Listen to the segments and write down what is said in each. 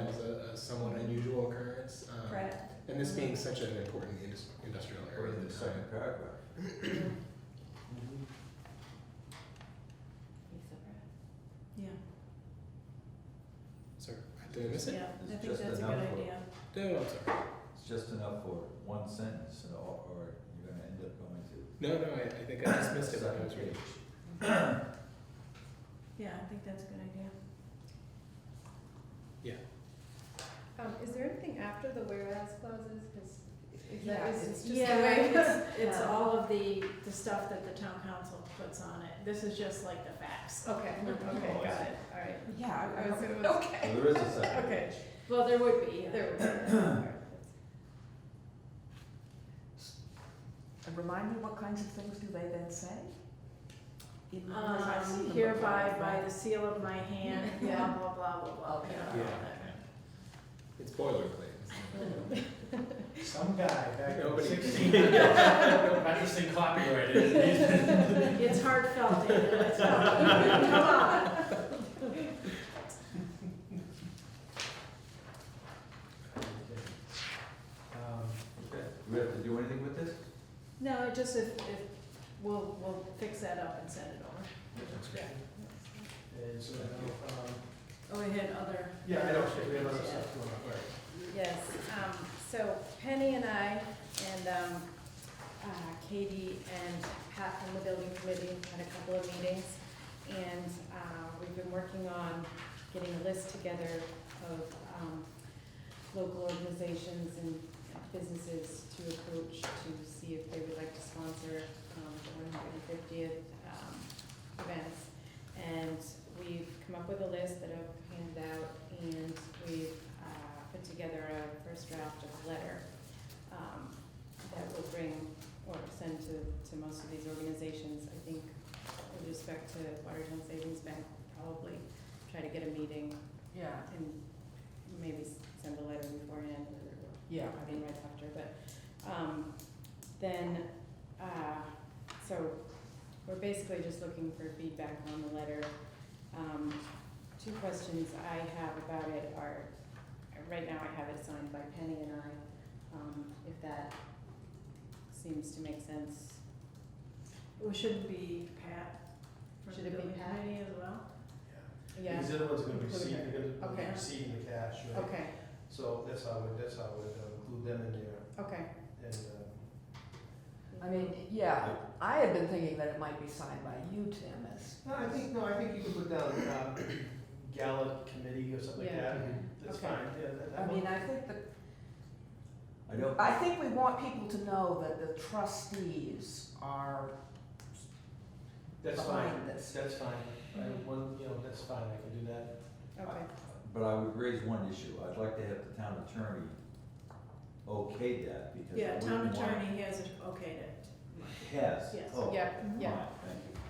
um, Uh, And this being such an important indus- industrial Or area at in the the time. second paragraph. Yeah, Sorry, did I miss it? yeah, I It's think just that's a good enough for- idea. No, I'm sorry. It's just enough for one sentence, and all- or you're gonna end up going to. No, no, I, I think I just missed it when I was reading. Yeah, I think that's a good idea. Um, is there anything after the whereas clauses, cause if that Yeah, is, it's it's just the Yeah, way. it's, it's Yeah. all of the, the stuff that the town council puts on it. This is just like the facts. Okay, okay, Oh, I got see. it, alright. Yeah, I was, it was. Well, There is a second. Okay, Well, there would be, yeah. there we go. Um, Alright, And remind me, what kinds of things do they then say? In Um, numbers, I've seen them hereby before, by but- the seal of my hand, blah, Yeah. blah, blah, blah, blah, you know, all Yeah. that. It's boilerplate. isn't it? Some guy back in Nobody- sixteen hundreds, not just in copyright, it is. It's heartfelt, David, it's heartfelt. Come on. Um, Okay, do we have to do anything with this? No, just if, if, we'll, we'll fix that up and send it over. That's great. And so, um, Oh, we had other. yeah, I don't, we have other Yeah. stuff going on. Yes, um, so Penny and I and, um, uh, Katie and Pat from the building committee had a couple of meetings. And, uh, we've been working on getting a list together of, um, local organizations and businesses to approach to see if they would like to sponsor, um, the one hundred and fiftieth, um, events. And we've come up with a list that I've handed out, and we've uh, put together a first draft of a letter um, that will bring or send to, to most of these organizations. I think with respect to Watertown Savings Bank, we'll probably try to get a meeting Yeah, and maybe s- send a letter beforehand or yeah, I mean, right after, but, um, then, uh, so we're basically just looking for feedback on the letter. Um, two questions I have about it are, right now I have it signed by Penny and I, um, if that seems to make sense. Well, shouldn't be Pat. from Should it be building Pat? committee as well? Yeah, These other ones are gonna be Including receiving, they're gonna be Okay. receiving the cash, right? okay, So that's how I would, that's how I would uh, include them in there, okay. and, uh, I mean, yeah, I had been thinking that it might be signed by you, Tim, as. no, I think, no, I think you could put down, um, Gallup Committee or something like Yeah. that, Mm-hmm. that's Okay. fine, yeah, that, that I one. mean, I think that, I don't, I think we want people to know that the trustees are, That's fine, behind this. that's fine, I, one, you know, that's fine, I can do that. Okay, but I would raise one issue. I'd like to have the town attorney okay that because. I Yeah, town wouldn't want- attorney has okayed it. Has, Yes. oh, yeah, fine, yeah, thank you.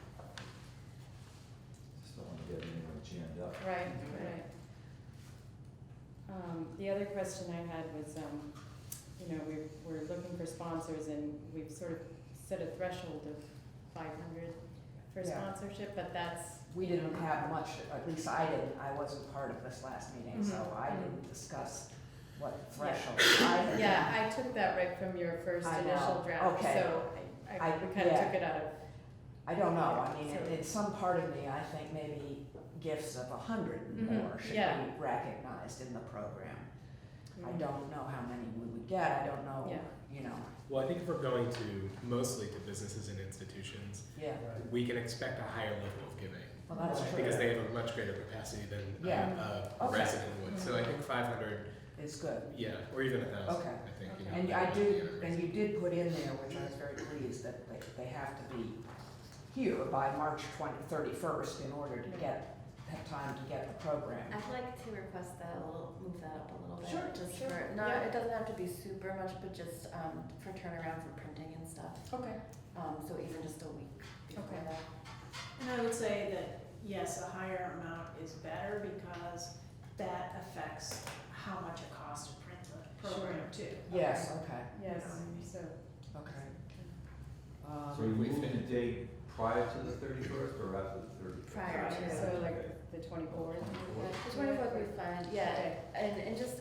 Just don't wanna get anyone jammed up. Right, right. Um, the other question I had was, um, you know, we're, we're looking for sponsors and we've sort of set a threshold of five hundred for Yeah. sponsorship, but that's, we you know, didn't have much, at least I didn't, I wasn't part of this last meeting, so Mhm, I mhm. didn't discuss what threshold I had. Yeah, I took that right from your first I know, initial draft, okay. so I, I, I- we kind of yeah. took it out of, I don't know, I mean, So- in some part of me, I think maybe gifts of a hundred and Mhm, more should yeah. Mm-hmm. be recognized in the program. I don't know how many we would get, I don't know, Yeah. you know, Well, I think if we're going to mostly to businesses and institutions, yeah, Right. we can expect a higher level of giving. well, that's Right, true. Because they have a much greater capacity than Yeah. a, a Okay. resident would. So I think five hundred, It's good, yeah, or even a thousand, Okay. I think, you know. and that I would be do, a and you did put in there, which I was very pleased, that they, they have to be here by March twenty, thirty-first in order to get, have time to get the program. I'd like to request that a little, move that up a little bit. Sure, just sure, for- Not, yeah. it doesn't have to be super much, but just, um, for turnaround for printing and stuff. Okay, Um, so even just a week before Okay. that. And I would say that, yes, a higher amount is better because that affects how much it costs to print the program too. Yes, okay, yes, so, okay. So you Um, moving the date prior to the thirty-first or after the thirty-first? Prior to. So like the twenty-fourth. The twenty-fourth would be fine, yeah, Okay. and, and just